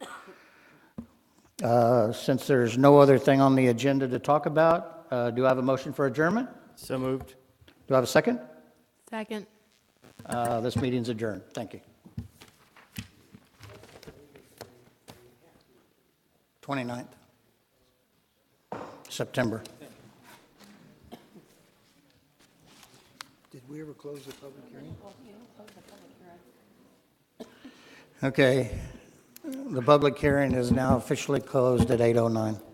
Uh, Since there's no other thing on the agenda to talk about, uh, do I have a motion for adjournment? So moved. Do I have a second? Second. Uh, This meeting's adjourned. Thank you. 29th, September. Did we ever close the public hearing? Okay, the public hearing is now officially closed at 8:09.